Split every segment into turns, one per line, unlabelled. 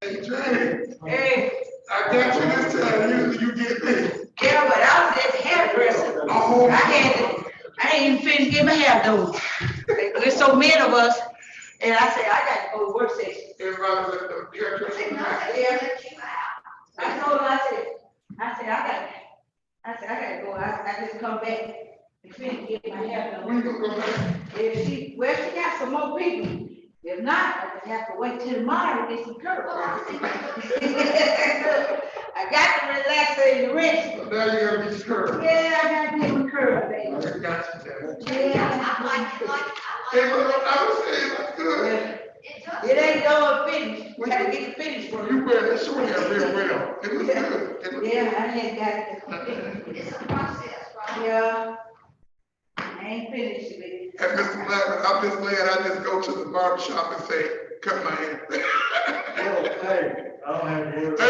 Hey, Trey, I got you this time, usually you get me.
Yeah, but I was at the hairdresser. I had, to- I ain't even finished getting my hair done. There's so many of us, and I said, I gotta go to work session.
Everybody was at the hairdresser.
I said, "Yeah, let you out." I told her, I said, I said, I gotta, I said, I gotta go, I, I just come back and finish getting my hair done.
We gonna go back.
If she, well, she got some more people. If not, I just have to wait till tomorrow to get some curls. I got to relax and rest.
So Now you gotta be sure.
Yeah, I gotta get some curls,
I
baby.
got you there.
Yeah, I like it.
Hey, but I was saying, that's good.
It ain't going finished. We gotta get the finish for
You
you.
wear that short hair real well. It was good. It was-
Yeah, I had got it.
It's a process, right?
Yeah. I ain't finished it.
And Mr. Blackman, I'm just glad I just go to the barber shop and say, cut my hair.
Hey, I don't have any.
Hey, look, I,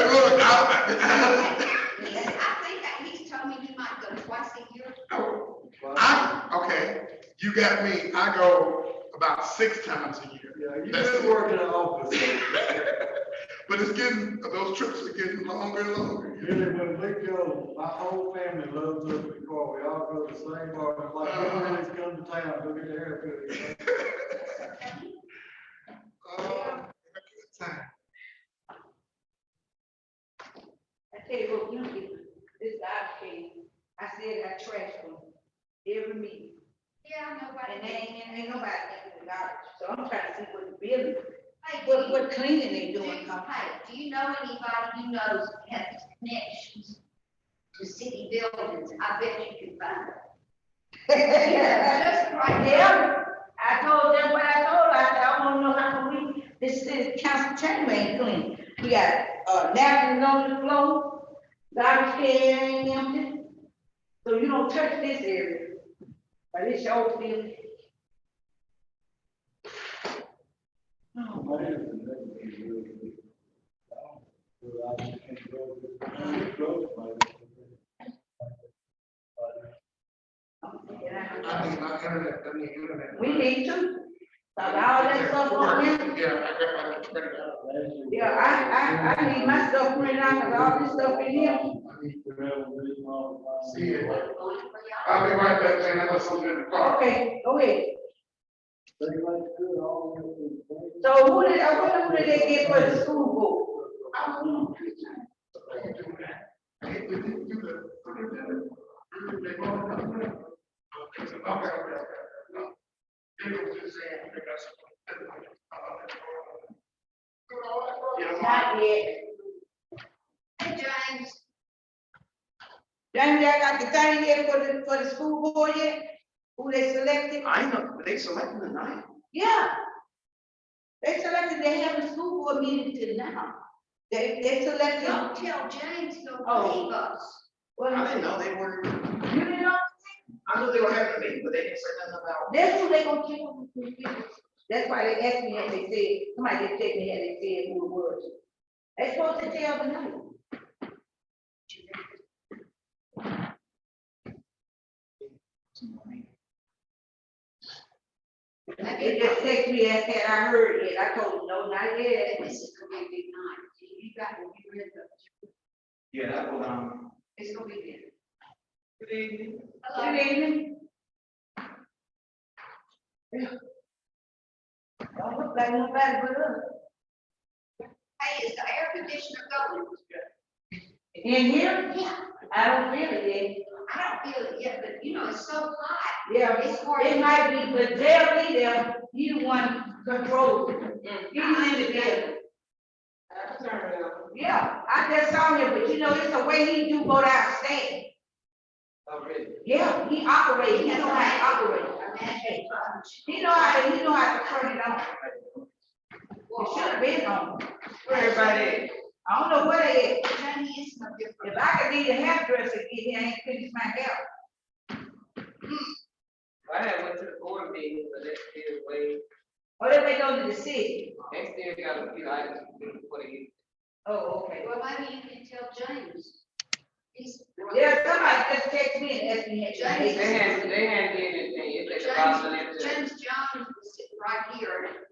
Because I think that he's told me he might go twice a year.
I, okay, you got me, I go about six times a year.
Yeah, you just work in the office.
But it's getting, those trips are getting longer and longer.
Really, when we go, my whole family loves us before, we all go to the same bar, It's like, everybody's come to town, go get their haircut.
Oh, good time.
I tell you what, you get, this I came, I said I trashed them every meeting.
Yeah, nobody.
And they ain't, ain't nobody getting the garbage, so I'm trying to see what the building,
Hey, do
what,
you,
what cleaning they
do,
doing. huh?
hey, do you know anybody you know has connections to city buildings? I bet you could find them.
Just right there, I told them what I told, her. I said, I wanna know how we, this is council chamber ain't clean. We got, uh, napkins on the floor, garbage can ain't empty, so you don't touch this area, but it's your field.
My hair's been looking at me really good. Well, I can't grow it. I grow it, my-
I need my internet, I need internet.
We need to, stop all that stuff on there.
Yeah, I got my internet out.
Last year-
Yeah, I, I, I need my stuff printed out, cause all this stuff in here,
I need to have a meeting all the time.
See it.
Or you- or y'all-
I'll be right back, man, I got something in the car.
okay, go ahead.
They like good all the way.
So who did, I wonder who did they get for the school board? I don't know.
I can do that. I hate to do that. I do that. They go, I'm not gonna- I'm not gonna- I'm not gonna- They don't just say, I think that's- Yeah.
Not yet.
Hey, James,
Then they got the thing yet for the, for the school board yet? Who they selected?
I know, they selected the nine.
Yeah. They selected, they have a school board meeting till now. They, they selected,
don't tell James he'll
Oh.
leave us.
I
well,
didn't know they were,
you didn't know,
I knew they were having a meeting, but they didn't say nothing about.
that's who they gonna check with the computer. That's why they asked me, and they said, somebody just checked me, and they said who it was. They supposed to tell the night. They
Maybe
just text me and said, I heard it, I told them, no, not yet.
this is gonna be night. You got to be rid of.
Yeah, that was, um.
It's gonna be
Good evening.
good.
Good
Hello.
evening. Don't look like nobody but us.
Hey, is the air conditioner going?
In here,
Yeah,
I don't feel it
I don't feel it yet, but you know, it's so hot.
yet. Yeah,
It's hard.
it might be, but they'll be there, you the one control.
Mm.
He's in the building. Yeah, I just saw him, but you know, it's the way he do go downstairs.
Oh,
Yeah, he operate, he know how to operate.
Imagine, um,
He know how, he know how to turn it on. It should have been on.
Where everybody?
I don't know what it is.
Johnny is no different.
If I could be the hairdresser, get here, I ain't finished my hair.
I had went to the board meeting, but they still wait,
Or if they go to the city.
they still got a few items to do before they.
Oh, okay.
Well, maybe you can tell James. He's.
Yeah, somebody just text me and asked me.
James-
They had, they hadn't did anything, it's like the bottom of
James,
that.
James Jones was sitting right here,